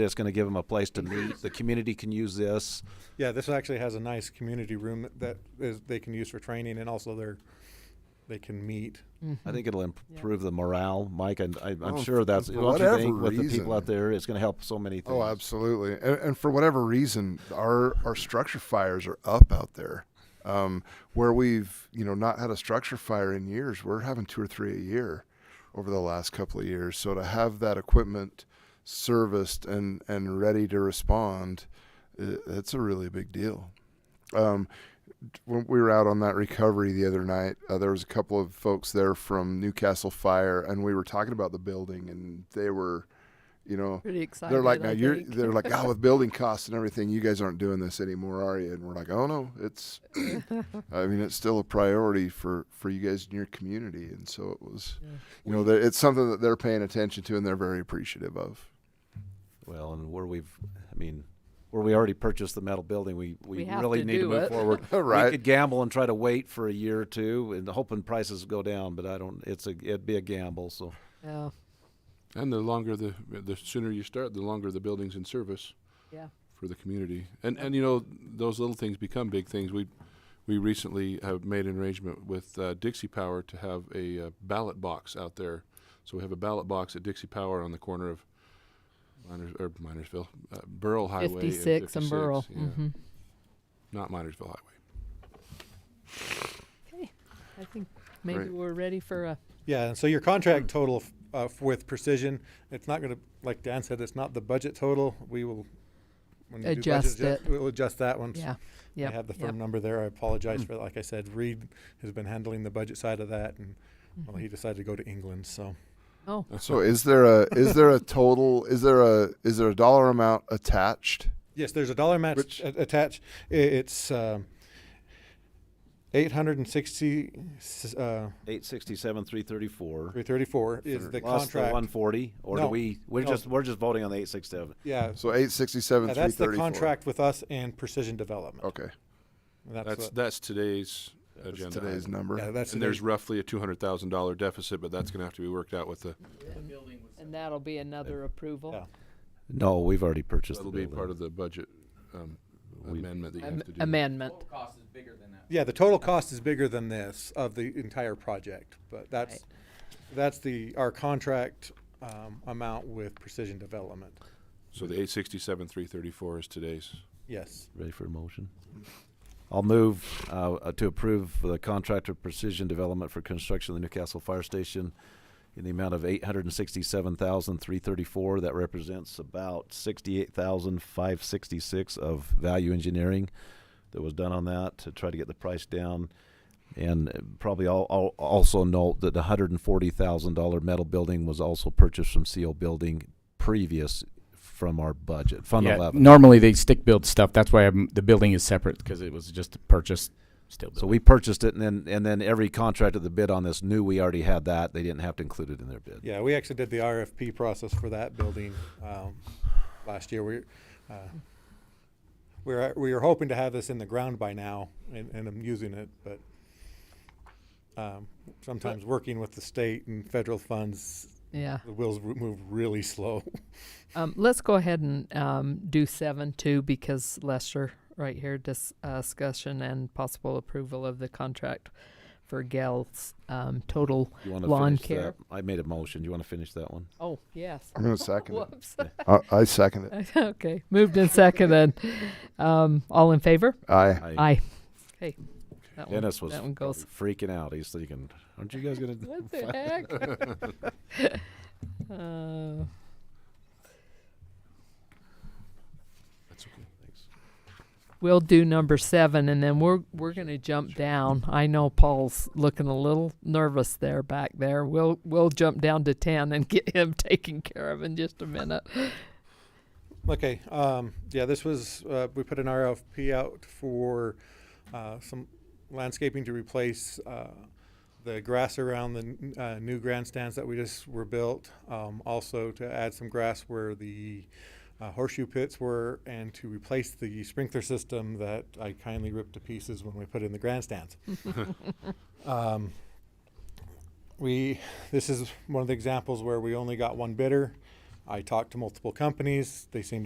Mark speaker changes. Speaker 1: It's going to give them a place to meet. The community can use this.
Speaker 2: Yeah, this actually has a nice community room that is, they can use for training and also they're, they can meet.
Speaker 3: Mm.
Speaker 1: I think it'll improve the morale, Mike, and I, I'm
Speaker 4: Mm-hmm. Oh,
Speaker 1: sure that's
Speaker 4: for
Speaker 1: don't you think,
Speaker 4: whatever
Speaker 1: with the people out
Speaker 4: reason.
Speaker 1: there. It's going to help so many things.
Speaker 4: Oh, absolutely. And, and for whatever reason, our our structure fires are up out there. Um, where we've you know not had a structure fire in years, we're having two or three a year over the last couple of years. So to have that equipment serviced and and ready to respond, i it's a really big deal. Um, when we were out on that recovery the other night, uh, there was a couple of folks there from Newcastle Fire, and we were talking about the building, and they were, you know,
Speaker 3: Pretty excited.
Speaker 4: they're like, now
Speaker 3: I
Speaker 4: you're.
Speaker 3: think.
Speaker 4: They're like, oh, with building costs and everything, you guys aren't doing this anymore, are you? And we're like, oh no, it's. I mean, it's still a priority for for you guys in your community, and so it was. You know, that it's something that they're paying attention to, and they're very appreciative of.
Speaker 1: Well, and where we've, I mean, where we already purchased the metal building, we, we,
Speaker 3: We have
Speaker 1: really
Speaker 3: to
Speaker 1: need to
Speaker 3: do
Speaker 1: move
Speaker 2: Uh,
Speaker 3: it.
Speaker 1: forward. We
Speaker 4: Right.
Speaker 1: could gamble and try to wait for a year or two and hoping prices go down, but I don't, it's a, it'd be a gamble, so.
Speaker 3: Yeah.
Speaker 5: And the longer the the sooner you start, the longer the building's in service
Speaker 3: Yeah.
Speaker 5: for the community. And and you know those little things become big things. We we recently have made an arrangement with uh, Dixie Power to have a uh, ballot box out there. So we have a ballot box at Dixie Power on the corner of Miners or Minersville, uh, Burl Highway, and
Speaker 3: 56 and
Speaker 5: 56,
Speaker 3: Burl. Mm-hmm.
Speaker 5: yeah. not Minersville Highway.
Speaker 3: Okay. I think maybe
Speaker 4: Great.
Speaker 3: we're ready for a.
Speaker 2: Yeah, and so your
Speaker 3: Mm.
Speaker 2: contract total f- uh, f- with Precision, it's not gonna, like Dan said, it's not the budget total. We will. when you do budget
Speaker 3: Adjust
Speaker 2: adjust-
Speaker 3: it.
Speaker 2: We'll adjust that once.
Speaker 3: Yeah. Mm.
Speaker 2: I
Speaker 3: Yeah.
Speaker 2: have the firm number there. I apologize for, that. like I said, Reed has been handling the budget side of that and, well,
Speaker 3: Mm-hmm.
Speaker 2: he decided to go to England, so.
Speaker 3: Oh,
Speaker 4: So is there a is there a total is there a is there a dollar amount attached?
Speaker 2: Yes, there's a dollar match a- attached. I- It's um, eight hundred and sixty uh,
Speaker 1: Eight sixty-seven, three thirty-four.
Speaker 2: three thirty four is the
Speaker 1: Plus the
Speaker 2: contract.
Speaker 1: one forty, or do
Speaker 2: No,
Speaker 1: we, we're
Speaker 2: no.
Speaker 1: just, we're just voting on the eight sixty-seven.
Speaker 2: yeah,
Speaker 4: So eight sixty seven
Speaker 2: yeah,
Speaker 4: three
Speaker 2: that's the
Speaker 4: thirty four.
Speaker 2: contract with us and Precision Development.
Speaker 4: Okay,
Speaker 2: And That's,
Speaker 5: That's
Speaker 2: what-
Speaker 5: that's today's agenda.
Speaker 4: that's today's
Speaker 5: item.
Speaker 4: number.
Speaker 2: yeah, that's
Speaker 5: and
Speaker 2: the-
Speaker 5: there's roughly a two hundred thousand dollar deficit, but that's going to have to be worked out with the.
Speaker 3: and that'll be another approval.
Speaker 2: yeah.
Speaker 1: No, we've already purchased the
Speaker 5: That'll be part
Speaker 1: building.
Speaker 5: of the budget um, amendment that you
Speaker 3: Am-
Speaker 5: have to do.
Speaker 3: amendment.
Speaker 6: cost is bigger than that.
Speaker 2: Yeah, the total cost is bigger than this of the entire project, but that's that's the our contract um, amount with Precision Development.
Speaker 5: So the eight sixty-seven, three thirty-four is today's.
Speaker 2: Yes.
Speaker 1: Ready for a motion? I'll move uh, uh, to approve the contractor Precision Development for construction of the Newcastle Fire Station in the amount of eight hundred and sixty-seven thousand three thirty-four. That represents about sixty-eight thousand five sixty-six of value engineering that was done on that to try to get the price down. And uh, probably al- al- also note that the hundred and forty thousand dollar metal building was also purchased from CO Building previous from our budget, Fund
Speaker 7: Yeah,
Speaker 1: Eleven.
Speaker 7: Normally they stick build stuff. That's why I'm, the building is separate because it was just purchased. Still built.
Speaker 1: So we purchased it, and then and then every contractor that bid on this knew we already had that. They didn't have to include it in their bid.
Speaker 2: Yeah, we actually did the RFP process for that building um, last year. We, uh, we were we were hoping to have this in the ground by now, and, and I'm using it, but um, sometimes working with the state and federal funds,
Speaker 3: Yeah.
Speaker 2: the wheels r- move really slow.
Speaker 3: Um, let's go ahead and um, do seven two because Lester right here dis- uh, discussion and possible approval of the contract for Gals um, total
Speaker 1: You want to
Speaker 3: lawn
Speaker 1: finish
Speaker 3: care.
Speaker 1: that? I made a motion. You want to finish that one?
Speaker 3: Oh yes.
Speaker 4: I'm gonna second it.
Speaker 3: Whoops.
Speaker 4: I, I second it.
Speaker 3: okay. Moved and seconded. Um, all in favor?
Speaker 4: Aye.
Speaker 1: I,
Speaker 3: Aye. Okay. That one,
Speaker 1: Dennis was
Speaker 3: that one goes.
Speaker 1: probably freaking out. He's thinking, "Aren't you guys gonna?"
Speaker 3: What the heck? uh,
Speaker 5: That's okay. Thanks.
Speaker 3: we'll do number seven, and then we're we're gonna jump down. I know Paul's looking a little nervous there back there. We'll we'll jump down to ten and get him taken care of in just a minute.
Speaker 2: Okay, um, yeah, this was, uh, we put an RFP out for, uh, some landscaping to replace, uh, the grass around the, n- uh, new grandstands that we just were built. Um, also to add some grass where the uh, horseshoe pits were and to replace the sprinkler system that I kindly ripped to pieces when we put in the grandstands. Um, we, this is one of the examples where we only got one bidder. I talked to multiple companies. They seem